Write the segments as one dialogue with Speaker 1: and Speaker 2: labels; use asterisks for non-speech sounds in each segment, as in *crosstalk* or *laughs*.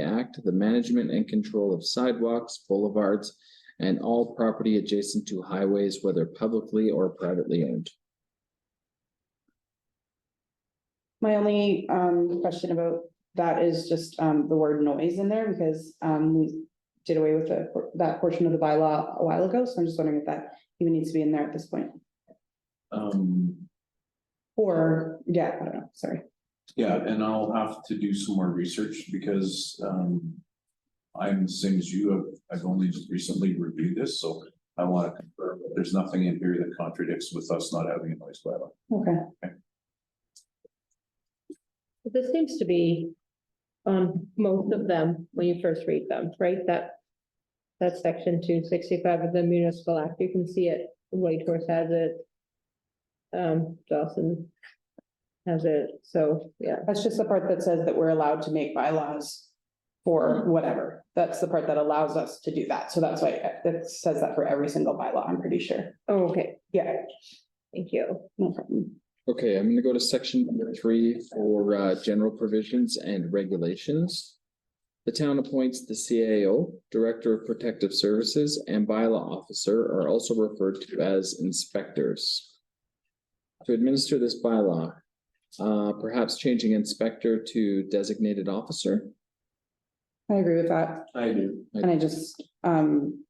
Speaker 1: Act, the management and control of sidewalks, boulevards, and all property adjacent to highways, whether publicly or privately owned.
Speaker 2: My only um question about that is just um the word noise in there because um we did away with the, that portion of the bylaw a while ago, so I'm just wondering if that even needs to be in there at this point.
Speaker 3: Um,
Speaker 2: Or, yeah, I don't know, sorry.
Speaker 3: yeah, and I'll have to do some more research because, um. I'm the same as you, I've, I've only just recently reviewed this, so I want to confirm that there's nothing in here that contradicts with us not having a noise bylaw.
Speaker 2: Okay,
Speaker 4: This seems to be on most of them when you first read them, right? That. That section two sixty-five of the municipal act, you can see it, Whitehorse has it. Um, Dawson. Has it, so, yeah,
Speaker 2: that's just the part that says that we're allowed to make bylaws for whatever. That's the part that allows us to do that. So that's why uh, that says that for every single bylaw, I'm pretty sure.
Speaker 4: Oh, okay,
Speaker 2: Yeah,
Speaker 4: thank you.
Speaker 2: no problem.
Speaker 1: Okay, I'm gonna go to section number three for uh general provisions and regulations. The town appoints the CAO, Director of Protective Services, and bylaw officer are also referred to as inspectors. To administer this bylaw, uh perhaps changing inspector to designated officer.
Speaker 2: I agree with that.
Speaker 3: I do.
Speaker 2: And I just, um,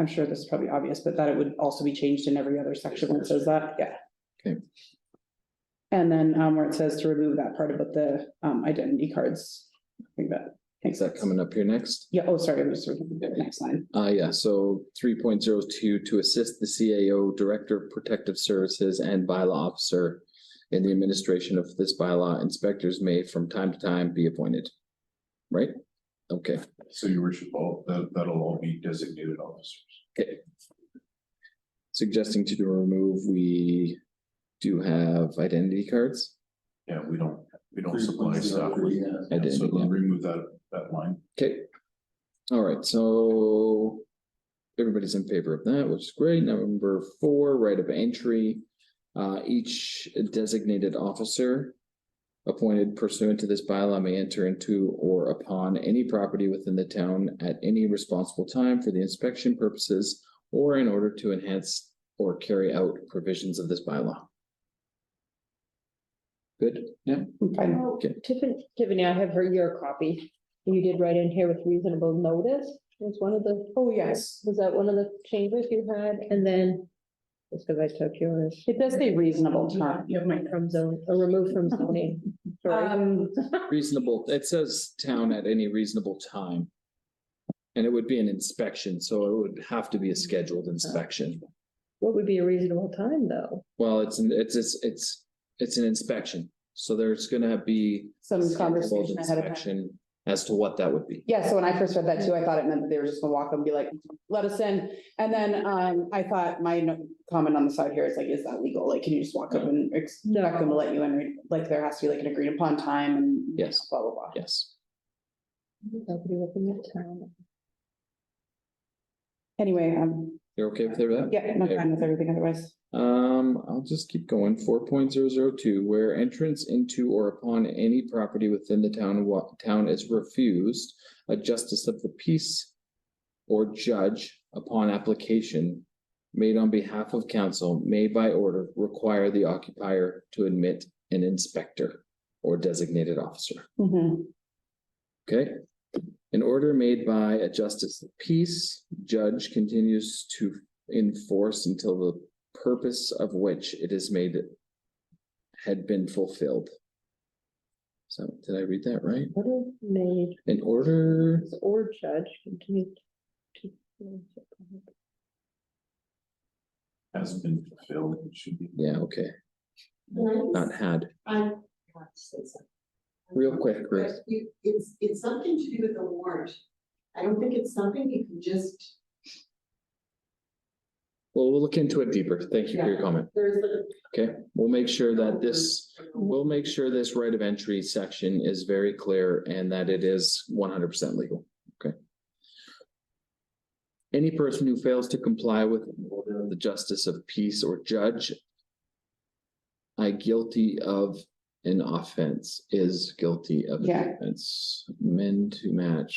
Speaker 2: I'm sure this is probably obvious, but that it would also be changed in every other section where it says that, yeah.
Speaker 1: Okay.
Speaker 2: And then, um, where it says to remove that part about the, um, identity cards, I think that.
Speaker 1: Is that coming up here next?
Speaker 2: Yeah, oh, sorry, I'm just reading the next line.
Speaker 1: Uh, yeah, so three point zero two, to assist the CAO Director of Protective Services and Bylaw Officer in the administration of this bylaw, inspectors may from time to time be appointed. Right? Okay,
Speaker 3: So your worship, all, that, that'll all be designated officers.
Speaker 1: suggesting to remove, we do have identity cards.
Speaker 3: Yeah, we don't, we don't supply staff. with-
Speaker 1: I
Speaker 3: Yeah,
Speaker 1: did,
Speaker 3: So
Speaker 1: yeah.
Speaker 3: we'll remove that, that line.
Speaker 1: Okay. All right, so everybody's in favor of that, which is great. Number four, right of entry. Uh, each designated officer appointed pursuant to this bylaw may enter into or upon any property within the town at any responsible time for the inspection purposes or in order to enhance or carry out provisions of this bylaw. Good? Yeah.
Speaker 2: I'm fine.
Speaker 1: Okay.
Speaker 4: Um, Tiffany, Tiffany, I have her your copy. You did write in here with reasonable notice, was one of the.
Speaker 2: Oh, yes.
Speaker 4: Was that one of the changes you had, and then. Just because I took yours.
Speaker 2: It does say reasonable time.
Speaker 4: You have my from zone, or remove from *laughs* zoning, sorry.
Speaker 2: Um,
Speaker 1: Reasonable, it says town at any reasonable time. And it would be an inspection, so it would have to be a scheduled inspection.
Speaker 4: What would be a reasonable time, though?
Speaker 1: Well, it's, an it's, it's, it's, it's an inspection, so there's gonna be. a
Speaker 2: some
Speaker 1: scheduled
Speaker 2: conversation ahead of time.
Speaker 1: inspection As to what that would be.
Speaker 2: Yeah, so when I first read that too, I thought it meant that they were just gonna walk up and be like, let us in. And then um, I thought my no- comment on the side here is like, is that legal? Like, can you just walk up and expect them to let you in? Like, there has to be like an agreed upon time and
Speaker 1: Yes.
Speaker 2: blah, blah, blah.
Speaker 1: Yes,
Speaker 4: Nobody within the town.
Speaker 2: Anyway, um,
Speaker 1: you're okay with that?
Speaker 2: yeah, I'm not fine with everything otherwise.
Speaker 1: Um, I'll just keep going. Four point zero zero two, where entrance into or upon any property within the town, wa- town is refused, a justice of the peace or judge upon application made on behalf of council may by order require the occupier to admit an inspector or designated officer.
Speaker 2: Mhm.
Speaker 1: Okay. An order made by a justice of peace judge continues to enforce until the purpose of which it is made had been fulfilled. So did I read that right?
Speaker 4: What are made
Speaker 1: An order,
Speaker 4: or judge continue to.
Speaker 3: Hasn't been fulfilled, it should be.
Speaker 1: yeah, okay,
Speaker 5: Can I
Speaker 1: not had.
Speaker 5: I want to say something.
Speaker 1: Real quick, Ruth.
Speaker 5: You- It's, it's something to do with the warrant. I don't think it's something you can just,
Speaker 1: Well, we'll look into it deeper. Thank you for your comment.
Speaker 5: there's the.
Speaker 1: Okay, we'll make sure that this, we'll make sure this right of entry section is very clear and that it is one hundred percent legal. Okay. Any person who fails to comply with an order of the justice of peace or judge I guilty of an offense is guilty of an
Speaker 2: Yeah.
Speaker 1: offense, men to match.